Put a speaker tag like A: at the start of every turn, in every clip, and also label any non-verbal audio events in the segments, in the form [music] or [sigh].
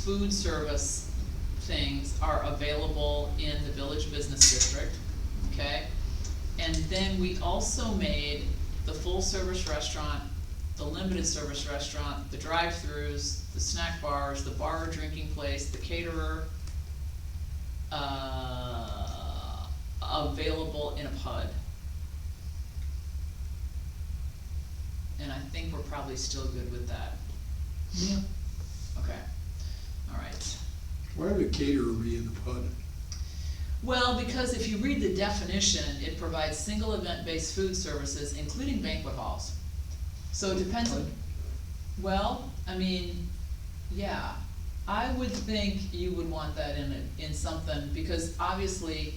A: food service things are available in the village business district, okay? And then we also made the full-service restaurant, the limited-service restaurant, the drive-throughs, the snack bars, the bar or drinking place, the caterer, uh, available in a PUD. And I think we're probably still good with that,
B: Yeah.
A: okay, alright.
B: Why would a caterer be in the PUD?
A: Well, because if you read the definition, it provides single event-based food services, including banquet halls. So it depends on, well, I mean, yeah, I would think you would want that in a, in something, because obviously,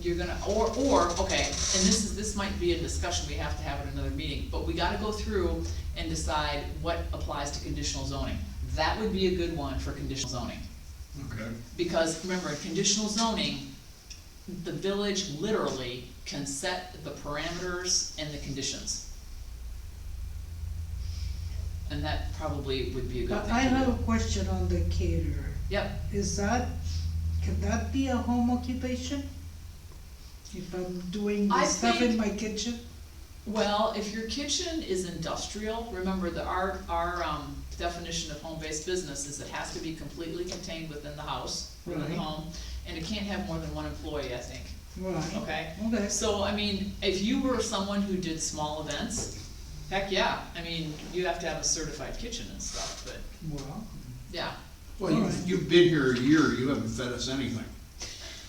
A: you're gonna, or, or, okay, and this is, this might be a discussion we have to have at another meeting, but we gotta go through and decide what applies to conditional zoning. That would be a good one for conditional zoning.
B: Okay.
A: Because remember, in conditional zoning, the village literally can set the parameters and the conditions. And that probably would be a good
C: But
A: thing
C: I
A: to
C: have a
A: do.
C: question on the caterer.
A: Yep,
C: Is that, can that be a home occupation? If I'm doing
A: I
C: the stuff in
A: think-
C: my kitchen?
A: well, if your kitchen is industrial, remember the, our, our, um, definition of home-based business is it has to be completely contained within the house, within the
C: Right.
A: home, and it can't have more than one employee, I think,
C: Right.
A: okay?
C: Okay,
A: So, I mean, if you were someone who did small events, heck yeah, I mean, you have to have a certified kitchen and stuff, but,
C: well,
A: yeah. [laughs]
D: Well, you,
C: Alright.
D: you've been here a year, you haven't fed us anything,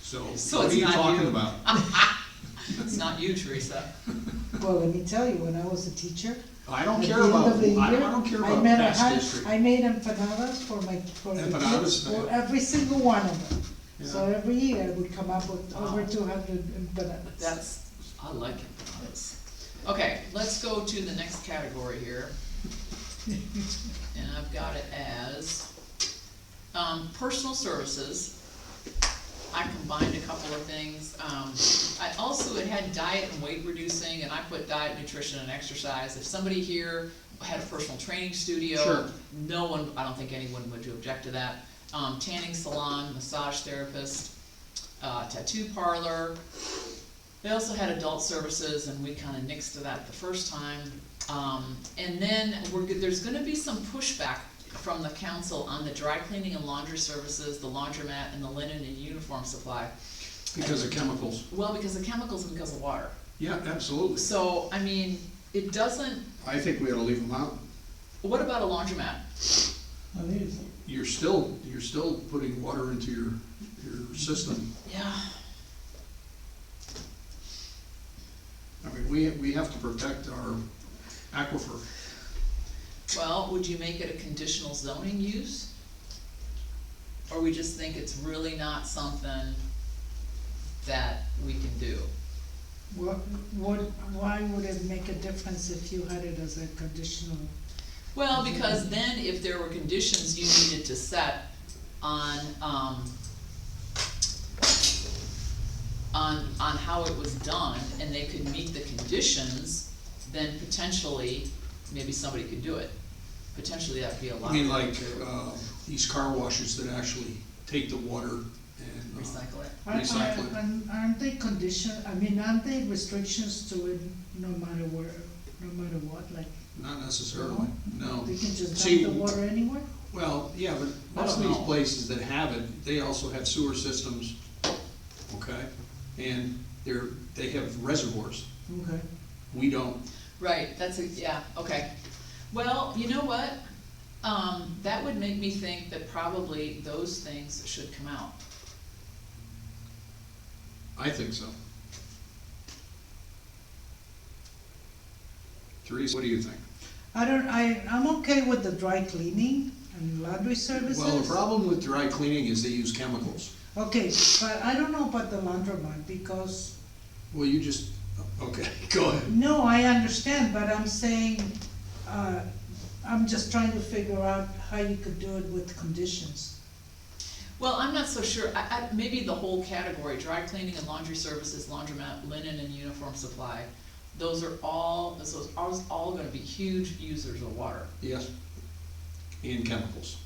D: so
A: So
D: what are
A: it's
D: you
A: not
D: talking
A: you.
D: about?
A: It's not you, Teresa.
C: well, let me tell you, when I was a teacher,
D: I don't
C: at
D: care
C: the end
D: about,
C: of the year,
D: I don't, I don't care
C: I
D: about
C: made a
D: past
C: hun-
D: history.
C: I made empanadas for my, for the kids,
D: Empanadas,
C: for
D: yeah.
C: every single one of them. So
D: Yeah.
C: every year I would come up with over
A: Wow.
C: two hundred empanadas.
A: That's, I like empanadas. Okay, let's go to the next category here. And I've got it as, um, personal services. I combined a couple of things. Um, I also, it had diet and weight reducing, and I put diet, nutrition, and exercise. If somebody here had a personal training studio,
D: Sure.
A: no one, I don't think anyone would object to that. Um, tanning salon, massage therapist, uh, tattoo parlor, they also had adult services, and we kinda nixed that the first time. Um, and then we're, go- there's gonna be some pushback from the council on the dry cleaning and laundry services, the laundromat, and the linen and uniform supply.
D: Because of chemicals,
A: Well, because of chemicals and because of water.
D: yeah, absolutely,
A: So, I mean, it doesn't,
D: I think we ought to leave them out,
A: what about a laundromat?
D: you're still, you're still putting water into your, your system.
A: Yeah.
D: I mean, we, we have to protect our aquifer,
A: Well, would you make it a conditional zoning use? Or we just think it's really not something that we can do?
C: What, what, why would it make a difference if you had it as a conditional?
A: Well, because then if there were conditions you needed to set on, um, on, on how it was done, and they could meet the conditions, then potentially, maybe somebody could do it. Potentially, that'd be a lot.
D: I mean, like, uh, these car washes that actually take the water and. uh,
A: Recycle it.
C: Are- are-
D: Recycling.
C: aren't- Aren't they condition, I mean, aren't they restrictions to it no matter where, no matter what, like,
D: Not necessarily, no.
C: they can just
D: See,
C: dump the water anywhere?
D: Well, yeah, but most of
A: don't
D: these
A: know.
D: places that have it, they also have sewer systems, okay? And they're, they have reservoirs.
C: Okay.
D: We don't.
A: Right, that's a, yeah, okay. Well, you know what? Um, that would make me think that probably those things should come out.
D: I think so. Teresa, what do you think?
C: I don't, I, I'm okay with the dry cleaning and laundry services.
D: Well, the problem with dry cleaning is they use chemicals.
C: Okay, but I don't know about the laundromat, because,
D: Well, you just, okay, [laughs] go ahead.
C: no, I understand, but I'm saying, uh, I'm just trying to figure out how you could do it with conditions.
A: Well, I'm not so sure, I, I, maybe the whole category, dry cleaning and laundry services, laundromat, linen and uniform supply, those are all, those are all- all gonna be huge users of water.
D: Yes. And chemicals.